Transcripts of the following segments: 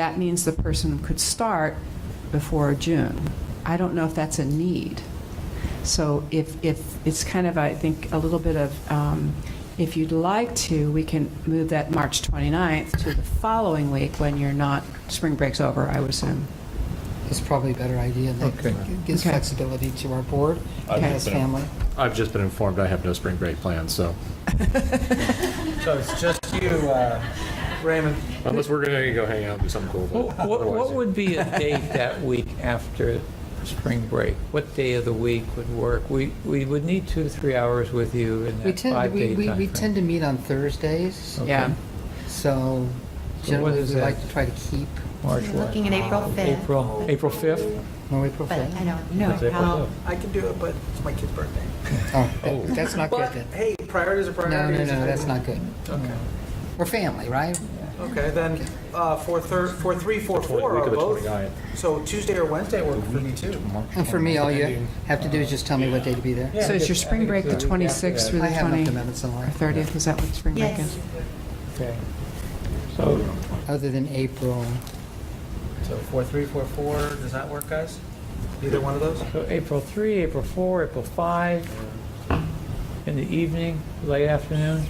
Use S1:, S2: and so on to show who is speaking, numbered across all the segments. S1: That means the person could start before June. I don't know if that's a need. So if, if, it's kind of, I think, a little bit of, um, if you'd like to, we can move that March 29th to the following week when you're not, spring break's over, I would assume.
S2: is probably a better idea. That
S3: Okay.
S2: gives
S1: Okay.
S2: flexibility to our board and
S1: Okay.
S2: his family.
S4: I've just been informed I have no spring break plans, so
S3: So it's just you, uh, Raymond.
S4: unless we're going to go hang out and do something cool.
S3: What,
S4: but
S3: what- what
S4: otherwise-
S3: would be a date that week after spring break? What day of the week would work? We, we would need two to three hours with you in
S2: We
S3: that
S2: tend, we,
S3: five-day
S2: we, we
S3: timeframe.
S2: tend to meet on Thursdays,
S3: Okay.
S1: Yeah.
S2: so
S3: So what
S2: generally
S3: is
S2: we
S3: that?
S2: like to try to keep,
S3: March what?
S5: Looking at April 5th,
S3: April, April 5th?
S2: no, April
S5: but I
S2: 5th.
S5: don't know
S3: It's April
S5: how,
S6: I can do it, but it's my kid's birthday.
S2: Oh, that- that's not good
S6: But,
S2: then.
S6: hey, priorities are
S2: No, no, no,
S6: priorities.
S2: that's not good.
S6: Okay,
S2: We're family, right?
S6: okay, then, uh, four thir, four three, four
S4: Twenty-
S6: four
S4: week
S6: are
S4: of the
S6: both.
S4: 29th.
S6: So Tuesday or Wednesday work for me too.
S2: And for me, all you have to do is just tell me what day to be there.
S3: Yeah,
S1: So
S3: I
S1: is your
S3: think- I
S1: spring
S3: think
S1: break the
S3: it's the week after
S1: 26th
S3: that.
S1: through
S2: I
S1: the
S2: have enough
S1: 20th
S2: amendments in
S1: or
S2: life,
S1: 30th? Is that what spring break
S5: yes,
S1: is?
S3: Okay. So,
S2: other than April.
S6: So four three, four four, does that work, guys? Either one of those?
S3: so April 3, April 4, April 5, in the evening, late afternoon?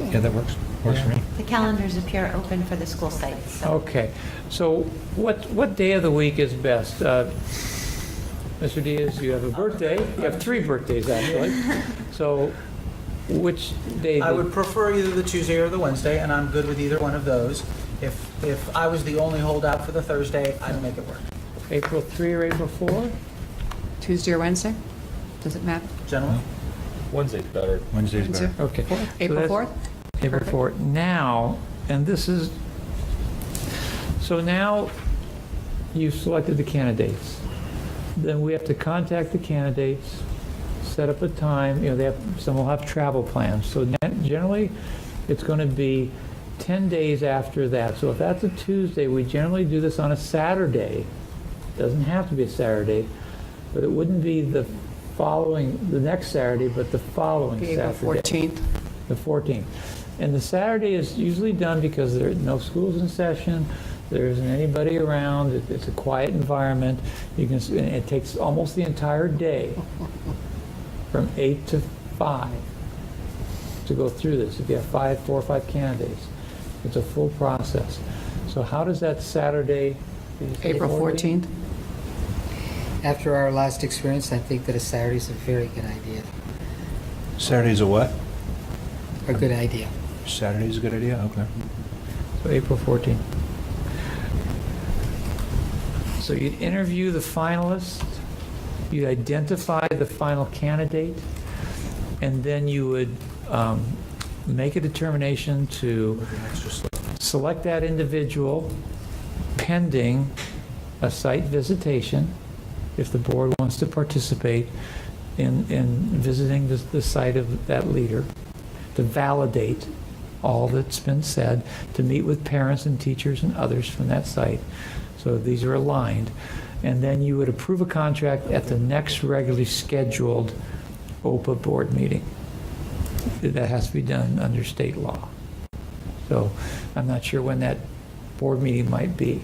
S2: Okay.
S7: that works, works for me.
S5: the calendars appear open for the school sites, so
S3: Okay, so what, what day of the week is best? Uh, Mr. Diaz, you have a birthday, you have three birthdays, actually. So which day?
S6: I
S3: did-
S6: would prefer either the Tuesday or the Wednesday, and I'm good with either one of those. If, if I was the only holdout for the Thursday, I'd make it work.
S3: April 3 or April 4?
S1: Tuesday or Wednesday? Does it matter?
S6: Gentlemen?
S4: Wednesday's better.
S7: Wednesday's better.
S3: Okay. So
S1: April
S3: that's-
S1: 4th?
S3: April 4. Now, and this is, so now you've selected the candidates. Then we have to contact the candidates, set up a time, you know, they have, some will have travel plans. So gen- generally, it's going to be 10 days after that. So if that's a Tuesday, we generally do this on a Saturday. Doesn't have to be a Saturday, but it wouldn't be the following, the next Saturday, but the following Saturday
S1: April 14th?
S3: the 14th. And the Saturday is usually done because there are no schools in session, there isn't anybody around, it- it's a quiet environment. You can, s- and it takes almost the entire day, from 8 to 5, to go through this, if you have five, four or five candidates. It's a full process. So how does that Saturday? did you say
S1: April 14th?
S2: After our last experience, I think that a Saturday's a very good idea,
S7: Saturday's a what?
S2: a good idea.
S7: Saturday's a good idea, okay.
S3: So April 14th. So you'd interview the finalists, you'd identify the final candidate, and then you would um, make a determination to select that individual pending a site visitation, if the board wants to participate in, in visiting the, the site of that leader, to validate all that's been said, to meet with parents and teachers and others from that site. So these are aligned. And then you would approve a contract at the next regularly scheduled OPA board meeting. That has to be done under state law. So I'm not sure when that board meeting might be,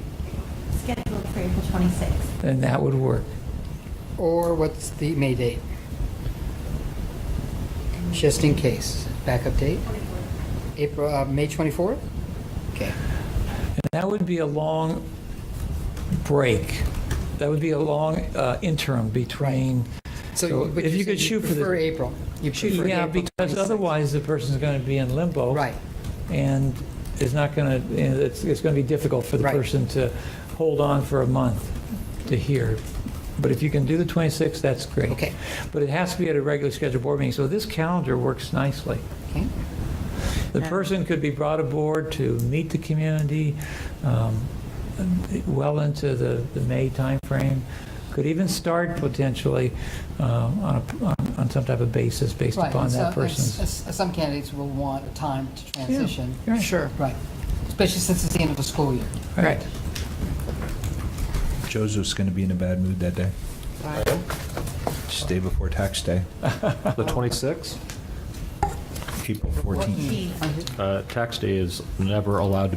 S5: scheduled for April 26th.
S3: and that would work.
S2: Or what's the May date? Just in case, backup date? April, uh, May 24th? Okay.
S3: And that would be a long break. That would be a long uh, interim between, So
S2: but
S3: if
S2: you're
S3: you could
S2: saying
S3: shoot for the-
S2: Prefer April. You prefer
S3: yeah,
S2: April
S3: because
S2: 26th.
S3: otherwise the person's going to be in limbo.
S2: Right.
S3: And it's not going to, it's, it's going to be difficult for the
S2: Right.
S3: person to hold on for a month to hear. But if you can do the 26th, that's great.
S2: Okay.
S3: But it has to be at a regular scheduled board meeting, so this calendar works nicely.
S2: Okay.
S3: The person could be brought aboard to meet the community um, well into the, the May timeframe, could even start potentially um, on, a- on- on some type of basis based
S2: Right,
S3: upon
S2: and so-
S3: that
S2: and s-
S3: person's.
S2: s- Some candidates will want a time to transition.
S3: right.
S2: Sure. Right, especially since it's the end of the school year.
S1: Right.
S7: Joseph's gonna be in a bad mood that day. It's the day before tax day.
S4: The 26th?
S7: April 14th.
S5: Fourteen.
S4: Uh, Tax day is never allowed to